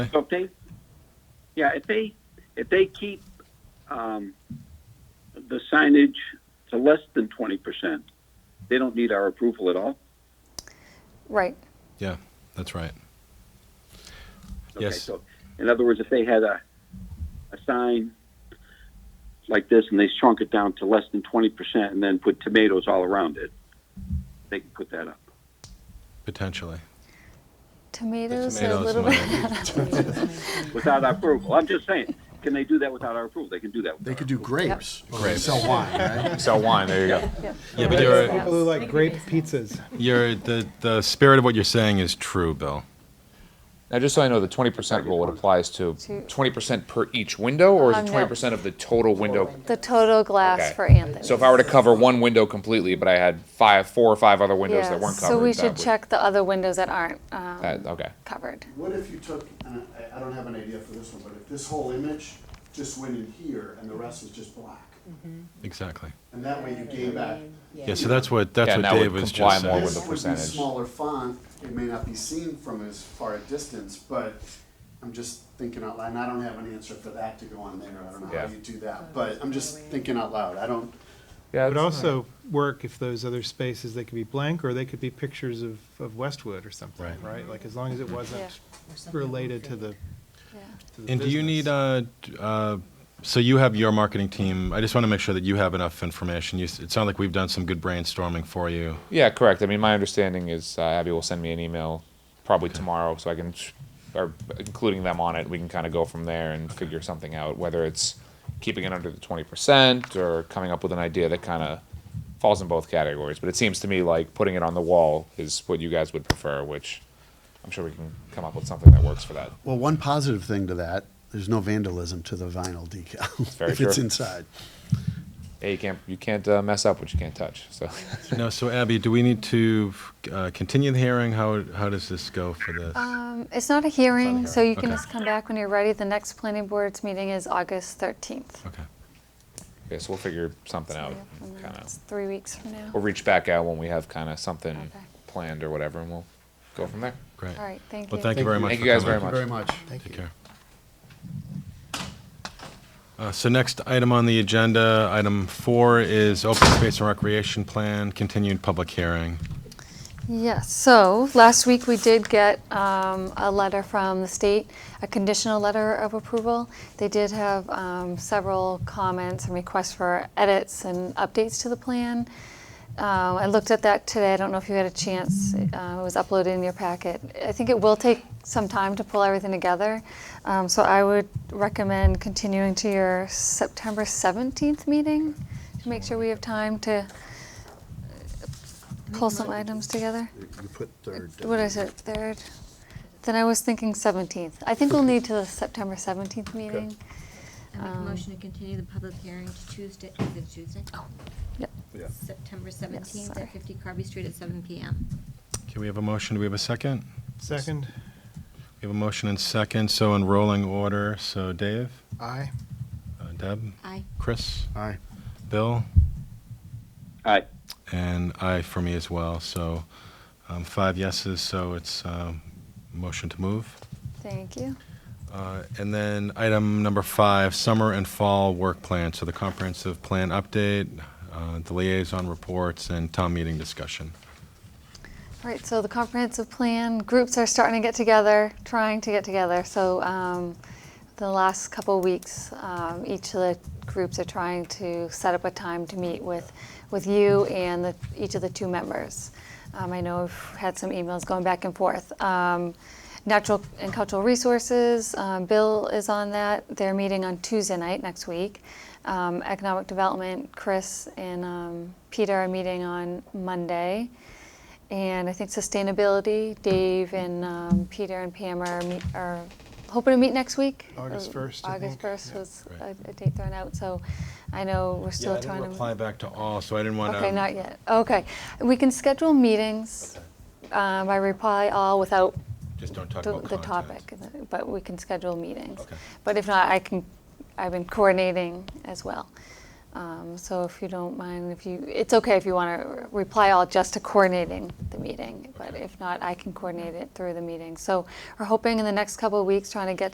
So if they, yeah, if they, if they keep, um, the signage to less than twenty percent, they don't need our approval at all? Right. Yeah, that's right. Okay, Yes. so, In other words, if they had a, a sign like this and they shrunk it down to less than twenty percent and then put tomatoes all around it, they could put that up. Potentially. Tomatoes, tomatoes a little might- bit. Without our approval, I'm just saying, can they do that without our approval? They can do that. They could do grapes. or Grapes. Sell wine, right? Sell wine, there you go. Yeah, but you're, People who like grape pizzas. you're the, the spirit of what you're saying is true, Bill. Now, just so I know, the twenty percent rule, it applies to To- twenty percent per each window, or is Um, it no. twenty percent of the total window? The total glass Okay. for Anthony. So if I were to cover one window completely, but I had five, four or five other windows Yeah, that weren't covered. So we that should would- check the other windows that aren't um, that- okay. covered. What if you took, and I, I don't have an idea for this one, but if this whole image just went in here and the rest was just black? Exactly. And that way you gave back. Yeah, so that's what, that's Yeah, what and that would Dave was comply just more saying. with- This the would be percentage. smaller font, it may not be seen from as far a distance, but I'm just thinking out loud, and I don't have an answer for that to go on there, I don't know Yeah. how you do that, but I'm just thinking out loud, I don't, Yeah, It would it's- also work if those other spaces, they could be blank, or they could be pictures of, of Westwood or something, Right. right? Like, as long as it wasn't Or something related to appropriate. the, Yeah. to the And do you need, uh, business. d- uh, so you have your marketing team, I just want to make sure that you have enough information. You, s- it sounds like we've done some good brainstorming for you. Yeah, correct. I mean, my understanding is uh, Abby will send me an email probably tomorrow, so I can, sh- or including them on it, we can kind of go from there and figure something out. Whether it's keeping it under the twenty percent or coming up with an idea that kind of falls in both categories. But it seems to me like putting it on the wall is what you guys would prefer, which I'm sure we can come up with something that works for that. Well, one positive thing to that, there's no vandalism to the vinyl decal Very if it's true. inside. Hey, you can't you can't uh, mess up what you can't touch. So No, so Abby, do we need to uh, continue the hearing? How, how does this go for this? Um, It's not a hearing, so you can Okay. just come back when you're ready. The next planning board's meeting is August 13th. Okay. okay, so we'll figure something out. And Kind of, that's Three weeks from now. we'll mm. reach back out when we have kind of something Okay. planned or whatever, and we'll go from there. Great. All right, thank you. Well, thank you very much. Thank for you guys coming. very much. Very much. Thank Take care. Uh, So next item on the agenda, item four is open space and recreation plan, continued public hearing. Yes, so last week we did get um, a letter from the state, a conditional letter of approval. They did have um, several comments and requests for edits and updates to the plan. Uh, I looked at that today. I don't know if you had a chance. Uh, it was uploaded in your packet. I think it will take some time to pull everything together. Um, so I would recommend continuing to your September 17th meeting to make sure we have time to pull some items together. You put third. What is it, third? Then I was thinking 17th. I think we'll need to the September 17th meeting. I make a Um, motion to continue the public hearing to Tuesday, is it Tuesday? Oh. yep. Yeah. September seventeenth sorry. at fifty Carby Street at seven PM. Okay, we have a motion, do we have a second? Second, We have a motion and second, so in rolling order, so Dave, aye. uh, Deb, Aye. Chris, Aye. Bill, Aye. and I for me as well, so um, five yeses, so it's um, motion to move. Thank you. Uh, And then item number five, summer and fall work plan. So the comprehensive plan update, uh, the liaison reports, and town meeting discussion. All right, so the comprehensive plan, groups are starting to get together, trying to get together. So um, the last couple of weeks, um, each of the groups are trying to set up a time to meet with, with you and the, each of the two members. Um, I know I've had some emails going back and forth. Um, Natural and Cultural Resources, um, Bill is on that. They're meeting on Tuesday night next week. Um, Economic Development, Chris and um, Peter are meeting on Monday. And I think sustainability, Dave and um, Peter and Pam are, meet, are hoping to meet next week. August Uh, 1st, I August think. 1st Yeah. was uh, Right. a, a date thrown out, so I know we're still I trying didn't to. reply back to all, so I didn't want to. Okay, not yet. Okay, we can schedule meetings um, by reply all without Just don't talk the, about the content. topic, but we can schedule meetings. Okay. But if not, I can, I've been coordinating as well. Um, So if you don't mind, if you, it's okay if you want to reply all just to coordinating the meeting, but if not, I can coordinate it through the meeting. So we're hoping in the next couple of weeks, trying to get